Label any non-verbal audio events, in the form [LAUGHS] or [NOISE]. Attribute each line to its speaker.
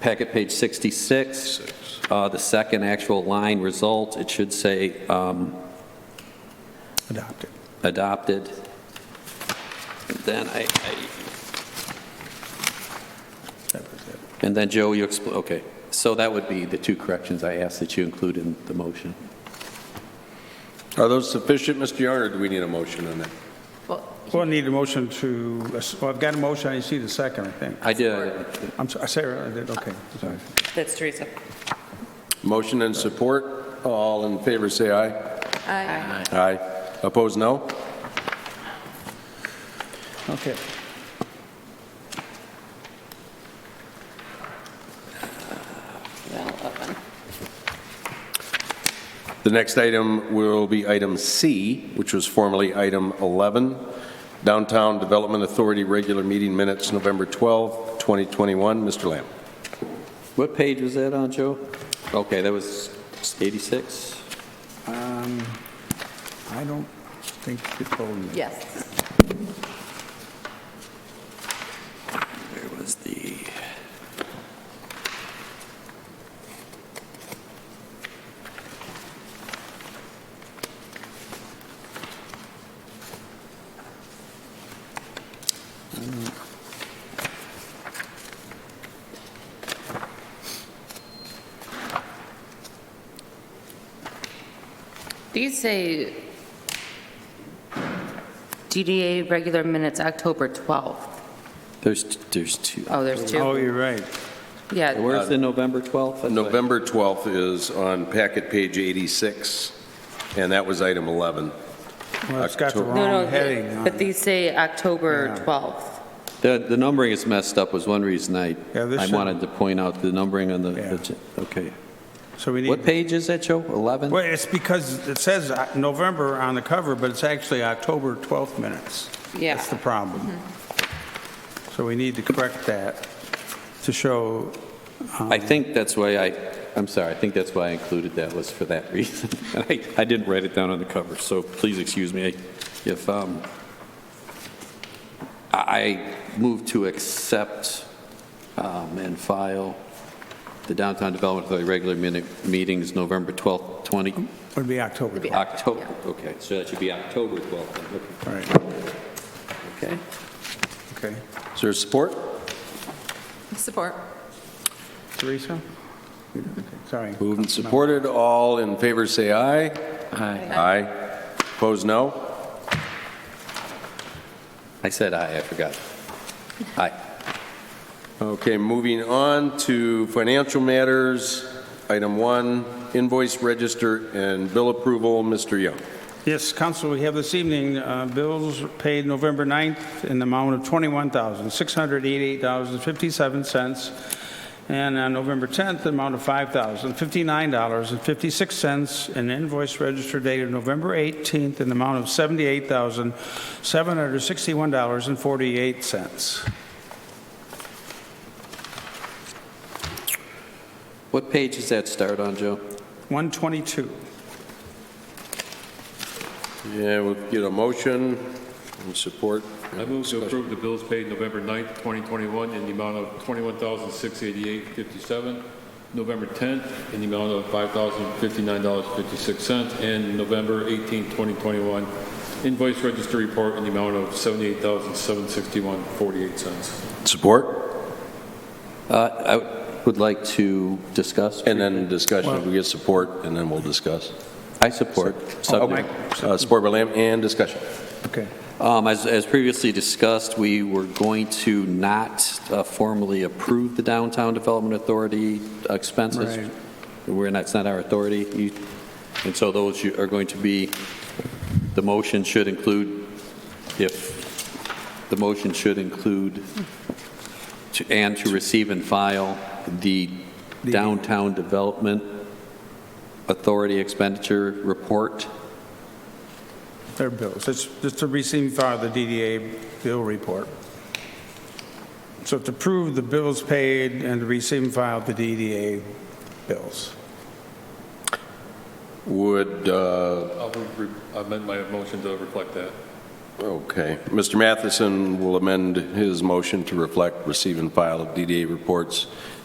Speaker 1: packet page 66, uh, the second actual line result, it should say um,
Speaker 2: adopted.
Speaker 1: adopted. And Then I, I-
Speaker 2: That was it.
Speaker 1: and then Joe, you expl, okay. So that would be the two corrections I asked that you include in the motion.
Speaker 3: Are those sufficient, Mr. Young, or do we need a motion on that?
Speaker 2: Well, I need a motion to, well, I've got a motion, I see the second, I think.
Speaker 1: I did,
Speaker 2: I'm sorry, Sarah, I did, okay, sorry.
Speaker 4: That's Teresa.
Speaker 3: Motion and support. All in favor, say aye.
Speaker 4: Aye.
Speaker 3: Aye. Opposed, no?
Speaker 2: Okay.
Speaker 4: Well, open.
Speaker 3: The next item will be item C, which was formerly item 11, Downtown Development Authority Regular Meeting Minutes, November 12, 2021. Mr. Lamb.
Speaker 1: what page was that on, Joe? Okay, that was 86?
Speaker 2: Um, I don't think you told me.
Speaker 4: Yes.
Speaker 1: There was the...
Speaker 5: These say DDA regular minutes, October 12th.
Speaker 1: There's, there's two. uh,
Speaker 5: Oh, there's
Speaker 2: Oh,
Speaker 5: two.
Speaker 2: you're right.
Speaker 5: Yeah,
Speaker 1: Where's the November 12th? That's what-
Speaker 3: November 12th is on packet page 86, and that was item 11.
Speaker 2: Well, it's got the
Speaker 3: October.
Speaker 5: no,
Speaker 2: wrong heading
Speaker 5: no,
Speaker 2: on
Speaker 5: but
Speaker 2: it.
Speaker 5: these say October
Speaker 2: Yeah.
Speaker 5: 12th.
Speaker 1: The, the numbering is messed up was one reason I,
Speaker 2: Yeah, this
Speaker 1: I
Speaker 2: should-
Speaker 1: wanted to point out the numbering on
Speaker 2: Yeah.
Speaker 1: the, okay.
Speaker 2: So we
Speaker 1: What
Speaker 2: need,
Speaker 1: page is that, Joe? 11?
Speaker 2: well, it's because it says uh, November on the cover, but it's actually October 12th minutes.
Speaker 5: Yeah. Mm-hmm.
Speaker 2: That's the problem. So we need to correct that to show,
Speaker 1: I think that's why I, I'm sorry, I think that's why I included that was for that [LAUGHS] reason. And I, I didn't write it down on the cover, so please excuse me if, um, I I move to accept, um, and file the Downtown Development Authority regular minute meetings, November 12th, 20,
Speaker 2: would be October
Speaker 5: Would be
Speaker 2: 12th.
Speaker 1: October, okay, so that should be October 12th, then, okay.
Speaker 2: All
Speaker 1: Okay.
Speaker 2: right, okay.
Speaker 3: Is there support?
Speaker 4: Support.
Speaker 2: Teresa? Sorry.
Speaker 3: Moved and supported. All in favor, say aye. Aye. Opposed, no?
Speaker 1: I said aye, I forgot. Aye.
Speaker 3: Okay, moving on to financial matters. Item one, invoice register and bill approval. Mr. Young.
Speaker 2: Yes, Council, we have this evening uh, bills paid November 9th in the amount of $21,688.57, and on November 10th, the amount of $5,059.56, and invoice register dated November 18th in the amount of $78,761.48.
Speaker 1: What page does that start on, Joe?
Speaker 2: 122.
Speaker 3: Yeah, we'll get a motion and support.
Speaker 6: I move to approve the bills paid November 9th, 2021, in the amount of $21,688.57, November 10th, in the amount of $5,059.56, and November 18th, 2021, invoice register report in the amount of $78,761.48.
Speaker 3: Support?
Speaker 1: Uh, I would like to discuss.
Speaker 3: And then discussion. If we get support, and then we'll discuss.
Speaker 1: I support.
Speaker 3: Okay. Uh, Support by Lamb and discussion.
Speaker 2: Okay.
Speaker 1: Um, As as previously discussed, we were going to not uh, formally approve the Downtown Development Authority expenses.
Speaker 2: Right.
Speaker 1: We're not, it's not our authority. You- And so those you- are going to be, the motion should include, if, the motion should include, to- and to receive and file the Downtown Development Authority expenditure report.
Speaker 2: Their bills. It's just to receive file the DDA bill report. So to prove the bills paid and to receive and file the DDA bills.
Speaker 3: Would, uh,
Speaker 6: I'll re- re- amend my motion to reflect that.
Speaker 3: Okay. Mr. Matheson will amend his motion to reflect receive and file of DDA reports